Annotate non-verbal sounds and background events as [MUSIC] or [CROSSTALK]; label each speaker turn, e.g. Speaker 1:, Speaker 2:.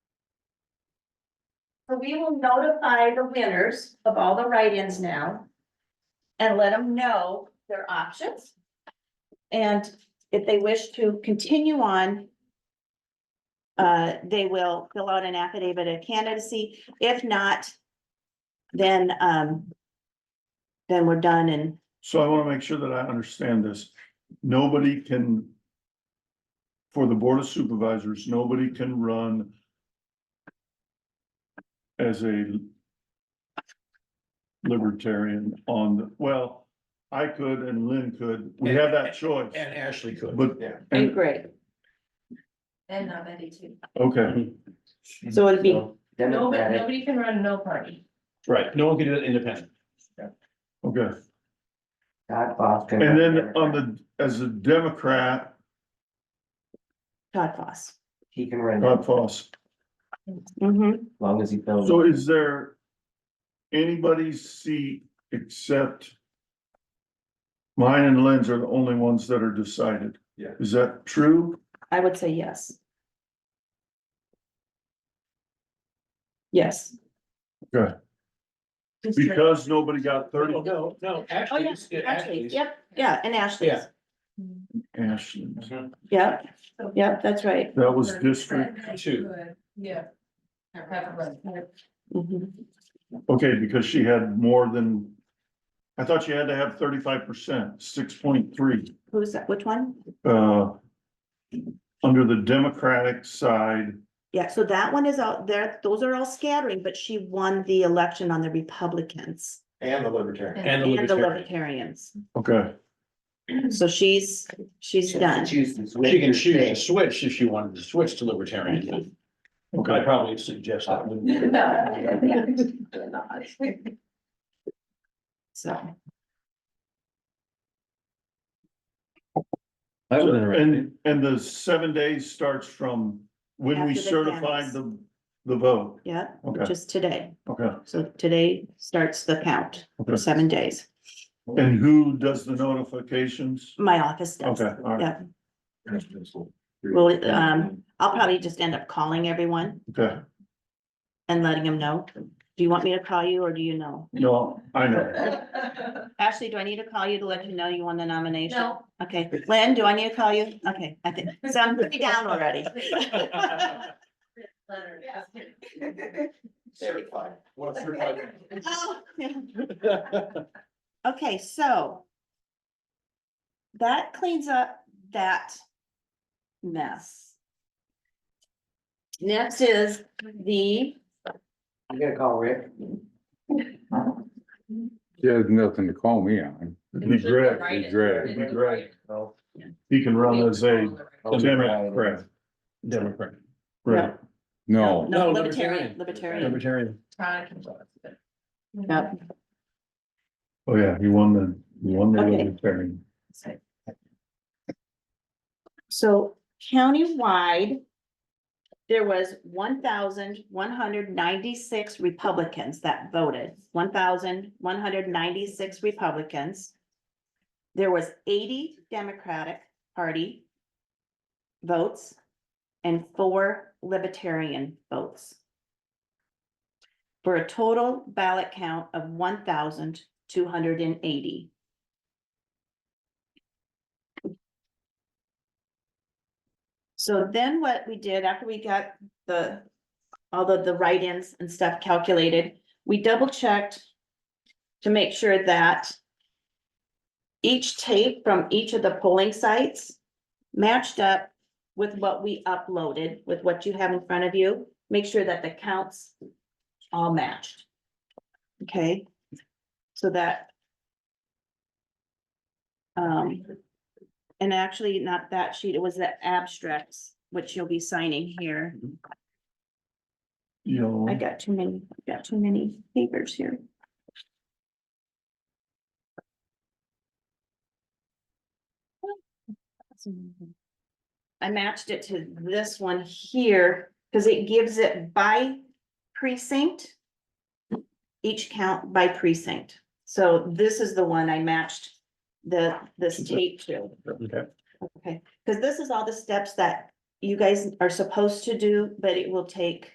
Speaker 1: So we will notify the winners of all the write-ins now. And let them know their options. And if they wish to continue on. Uh, they will fill out an affidavit of candidacy. If not. Then, um. Then we're done and
Speaker 2: So I want to make sure that I understand this. Nobody can. For the Board of Supervisors, nobody can run. As a. Libertarian on, the well, I could and Lynn could. We have that choice.
Speaker 3: And Ashley could.
Speaker 2: But-
Speaker 3: Yeah.
Speaker 2: And,
Speaker 1: great.
Speaker 4: And not Betty too.
Speaker 2: okay,
Speaker 1: So it'd be,
Speaker 4: Nobody,
Speaker 5: Democratic,
Speaker 4: nobody can run no party.
Speaker 3: Right, no one can do it independent.
Speaker 2: okay.
Speaker 5: Todd Foster.
Speaker 2: And then
Speaker 3: um,
Speaker 2: on the, as a Democrat,
Speaker 1: Todd Foss.
Speaker 5: He can run, as
Speaker 2: Todd Foss.
Speaker 1: Mhm.
Speaker 5: long as he
Speaker 3: Um,
Speaker 5: fills.
Speaker 2: So is there anybody's seat except mine and Lynn's are the only ones that are decided?
Speaker 3: Yeah.
Speaker 2: Is that true?
Speaker 1: I would say yes. Yes.
Speaker 2: Because nobody got thirty,
Speaker 3: No, no,
Speaker 1: Oh,
Speaker 3: actually,
Speaker 1: yeah,
Speaker 3: it's- it
Speaker 1: actually,
Speaker 3: actually. is-
Speaker 1: yep, yeah, and Ashley's,
Speaker 3: Yeah.
Speaker 2: Ashland,
Speaker 3: Mm-hmm.
Speaker 1: yep, yep, that's right.
Speaker 2: that was district,
Speaker 3: two.
Speaker 4: Yeah. Have a run.
Speaker 1: Mhm.
Speaker 2: okay, because she had more than. I thought you had to have thirty-five percent, six point three,
Speaker 1: Who's that, which one?
Speaker 2: uh. Under the Democratic side,
Speaker 1: Yeah, so that one is out there, those are all scattering, but she won the election on the Republicans
Speaker 3: And the libertarian.
Speaker 4: And
Speaker 3: And the
Speaker 1: and the
Speaker 3: libertarian.
Speaker 1: Libertarians.
Speaker 2: okay,
Speaker 1: So she's, she's done.
Speaker 5: Chooses.
Speaker 3: She can choose to [LAUGHS] switch if she wanted to switch to libertarian. I
Speaker 2: okay,
Speaker 3: probably suggest that. wouldn't I?
Speaker 4: No.
Speaker 1: So,
Speaker 6: That
Speaker 3: [LAUGHS]
Speaker 6: was interesting.
Speaker 2: and, and the seven days starts from when we
Speaker 1: After the
Speaker 2: certified
Speaker 1: canvas.
Speaker 2: the, the vote,
Speaker 1: yeah,
Speaker 2: okay,
Speaker 1: just today.
Speaker 2: okay.
Speaker 1: So today starts the count,
Speaker 2: Okay.
Speaker 1: seven days.
Speaker 2: And who does the notifications?
Speaker 1: My office does.
Speaker 2: Okay, all right,
Speaker 1: Yeah, well, um, I'll probably just end up calling everyone
Speaker 2: okay,
Speaker 1: and letting them know. Do you want me to call you or do you know?
Speaker 2: no, I know,
Speaker 1: Ashley, do I need to call you to let you know you won the nomination? Okay, Lynn, do I need to call you? Okay, I think, so I'm pretty down already. [LAUGHS]
Speaker 3: Certified. Well, certified.
Speaker 1: Oh, yeah. Okay, so. That cleans up that mess. Next is the,
Speaker 5: You gotta call Rick.
Speaker 6: She has nothing to call me on.
Speaker 2: it'd be great,
Speaker 6: It'd be great.
Speaker 2: it'd be great,
Speaker 5: Well,
Speaker 2: he can run as a
Speaker 6: Oh,
Speaker 2: Democrat,
Speaker 3: Democrat.
Speaker 2: right,
Speaker 1: no,
Speaker 6: No,
Speaker 1: no,
Speaker 3: No,
Speaker 1: libertarian,
Speaker 3: libertarian.
Speaker 1: libertarian.
Speaker 3: Libertarian.
Speaker 1: Yep.
Speaker 2: oh yeah, he won the, he won the
Speaker 1: Okay.
Speaker 2: libertarian.
Speaker 1: So countywide. There was one thousand one hundred ninety-six Republicans that voted, one thousand one hundred ninety-six Republicans. There was eighty Democratic Party. Votes. And four Libertarian votes. For a total ballot count of one thousand two hundred and eighty. So then what we did after we got the, all the, the write-ins and stuff calculated, we double checked to make sure that each tape from each of the polling sites matched up with what we uploaded, with what you have in front of you. Make sure that the counts all matched. Okay, so that um, and actually, not that sheet, it was the abstracts, which you'll be signing here.
Speaker 2: You
Speaker 1: I
Speaker 2: know,
Speaker 1: got too many, I got too many papers here. I matched it to this one here, because it gives it by precinct. Each count by precinct. So this is the one I matched the, this tape to.
Speaker 3: Okay.
Speaker 1: Okay, because this is all the steps that you guys are supposed to do, but it will take